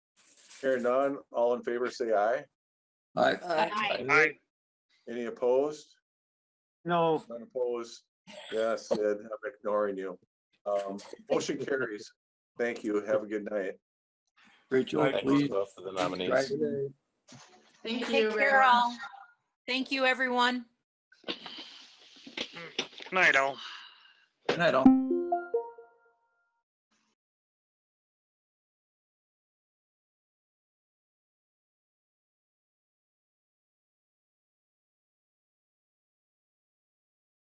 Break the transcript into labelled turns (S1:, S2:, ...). S1: Hearing none, all in favor, say aye.
S2: Aye.
S3: Uh,
S4: Aye.
S5: Aye.
S1: Any opposed?
S5: No,
S1: None opposed? Yes, Sid, I'm ignoring you. Um, motion carries. Thank you. Have a good night.
S2: Rachel,
S6: Thank you
S2: please.
S6: both for the
S2: drive
S6: nominees.
S2: it.
S3: Thank you.
S4: Take care
S3: everyone.
S4: all. Thank you, everyone.
S5: night owl.
S2: Good night, all.